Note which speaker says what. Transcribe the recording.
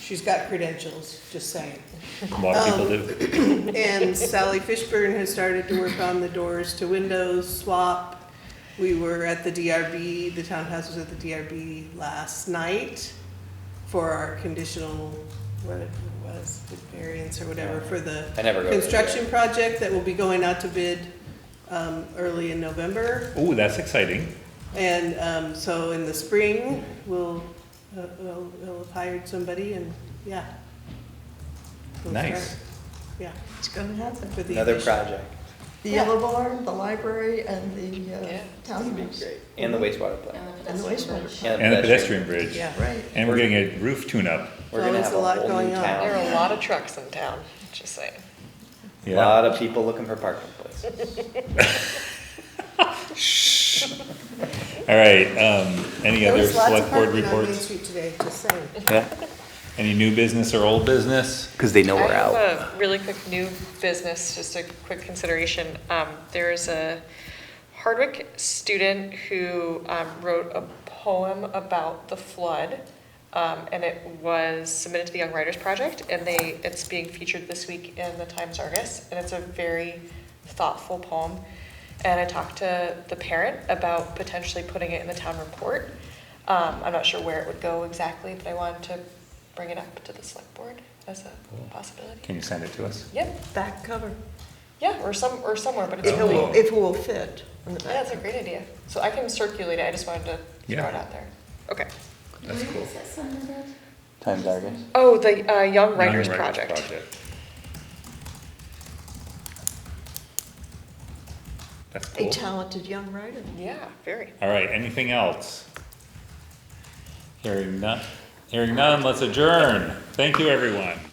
Speaker 1: She's got credentials, just saying.
Speaker 2: A lot of people do.
Speaker 1: And Sally Fishburne has started to work on the doors to windows swap. We were at the DRB, the townhouse was at the DRB last night for our conditional, what it was, variance or whatever, for the
Speaker 3: I never go. to the-
Speaker 1: construction project that will be going out to bid um, early in November.
Speaker 2: Ooh, that's exciting.
Speaker 1: And um, so in the spring, we'll, uh, we'll we'll have hired somebody and, yeah. We'll
Speaker 2: Nice.
Speaker 1: start, Yeah.
Speaker 4: It's gonna happen.
Speaker 1: for the
Speaker 3: Another
Speaker 1: addition.
Speaker 3: project
Speaker 4: The
Speaker 1: Yeah.
Speaker 4: yellow barn, the library, and the uh,
Speaker 5: Yeah.
Speaker 4: townhouse.
Speaker 3: and the wastewater plant
Speaker 4: And the wastewater. plant.
Speaker 3: and
Speaker 2: And
Speaker 3: the
Speaker 2: a pedestrian bridge.
Speaker 1: Yeah.
Speaker 4: Right.
Speaker 2: And we're getting a roof tune-up.
Speaker 3: We're
Speaker 1: Oh,
Speaker 3: gonna
Speaker 1: there's
Speaker 3: have
Speaker 1: a
Speaker 3: a
Speaker 1: lot
Speaker 3: whole
Speaker 1: going
Speaker 3: new
Speaker 1: on.
Speaker 5: There
Speaker 3: town.
Speaker 5: are a lot of trucks in town, just saying.
Speaker 3: A lot of people looking for parking places.
Speaker 2: All right, um, any
Speaker 1: There
Speaker 2: other
Speaker 1: was lots of
Speaker 2: select board
Speaker 1: parking on Main
Speaker 2: reports?
Speaker 1: Street today, just saying.
Speaker 3: Yeah,
Speaker 2: Any new business or old business?
Speaker 3: because they know
Speaker 5: I have a really quick new business, just a quick consideration. Um, there is a Hardwick student who um, wrote a poem about the flood. Um, and it was submitted to the Young Writers Project, and they it's being featured this week in the Times Argus, and it's a very thoughtful poem. And I talked to the parent about potentially putting it in the town report. Um, I'm not sure where it would go exactly, but I wanted to bring it up to the select board as a possibility.
Speaker 2: Can you send it to us?
Speaker 5: Yep,
Speaker 4: Back cover.
Speaker 5: yeah, or some, or somewhere, but it's
Speaker 4: If it
Speaker 5: really,
Speaker 2: Oh,
Speaker 4: will, if it will fit. on the
Speaker 5: yeah, that's
Speaker 4: back.
Speaker 5: a great idea. So I can circulate it, I just wanted to
Speaker 2: Yeah.
Speaker 5: throw it out there. Okay.
Speaker 2: That's cool.
Speaker 6: Is that something that-
Speaker 3: Times Argus.
Speaker 5: Oh, the, uh, Young
Speaker 2: Young
Speaker 5: Writers Project.
Speaker 2: That's
Speaker 4: A
Speaker 2: cool.
Speaker 4: talented young writer.
Speaker 5: Yeah, very.
Speaker 2: All right, anything else? Hearing none, hearing none, let's adjourn. Thank you, everyone.